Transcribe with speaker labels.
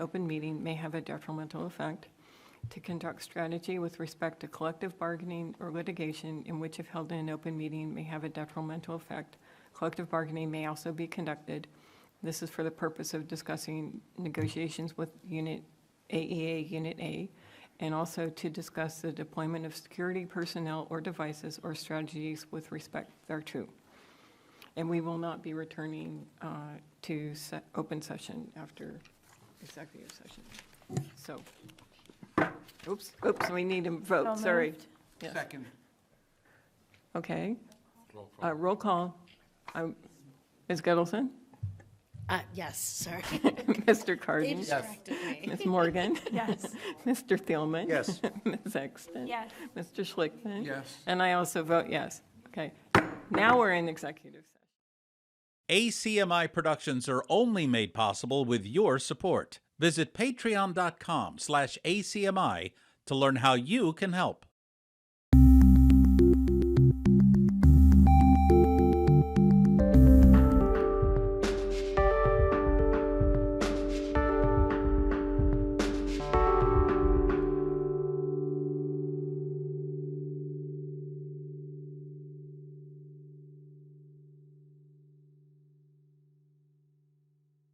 Speaker 1: open meeting may have a detrimental effect, to conduct strategy with respect to collective bargaining or litigation in which if held in an open meeting may have a detrimental effect. Collective bargaining may also be conducted. This is for the purpose of discussing negotiations with Unit AEA Unit A, and also to discuss the deployment of security personnel or devices or strategies with respect thereto. And we will not be returning uh, to se- open session after executive session. So, oops, oops, we need a vote,
Speaker 2: So
Speaker 1: sorry.
Speaker 2: moved.
Speaker 1: Yes.
Speaker 3: Second.
Speaker 1: Okay. Uh, Roll call. Um, Ms. Gettleson?
Speaker 4: Uh, yes, sorry.
Speaker 1: Mr.
Speaker 4: They
Speaker 1: Cardin?
Speaker 4: distracted me.
Speaker 1: Ms. Morgan?
Speaker 2: Yes.
Speaker 1: Mr. Thielman?
Speaker 3: Yes.
Speaker 1: Ms. Exton?
Speaker 2: Yes.
Speaker 1: Mr. Schlickman?
Speaker 3: Yes.
Speaker 1: And I also vote yes. Okay. Now we're in executive session.
Speaker 5: ACMI productions are only made possible with your support. Visit patreon.com slash ACMI to learn how you can help.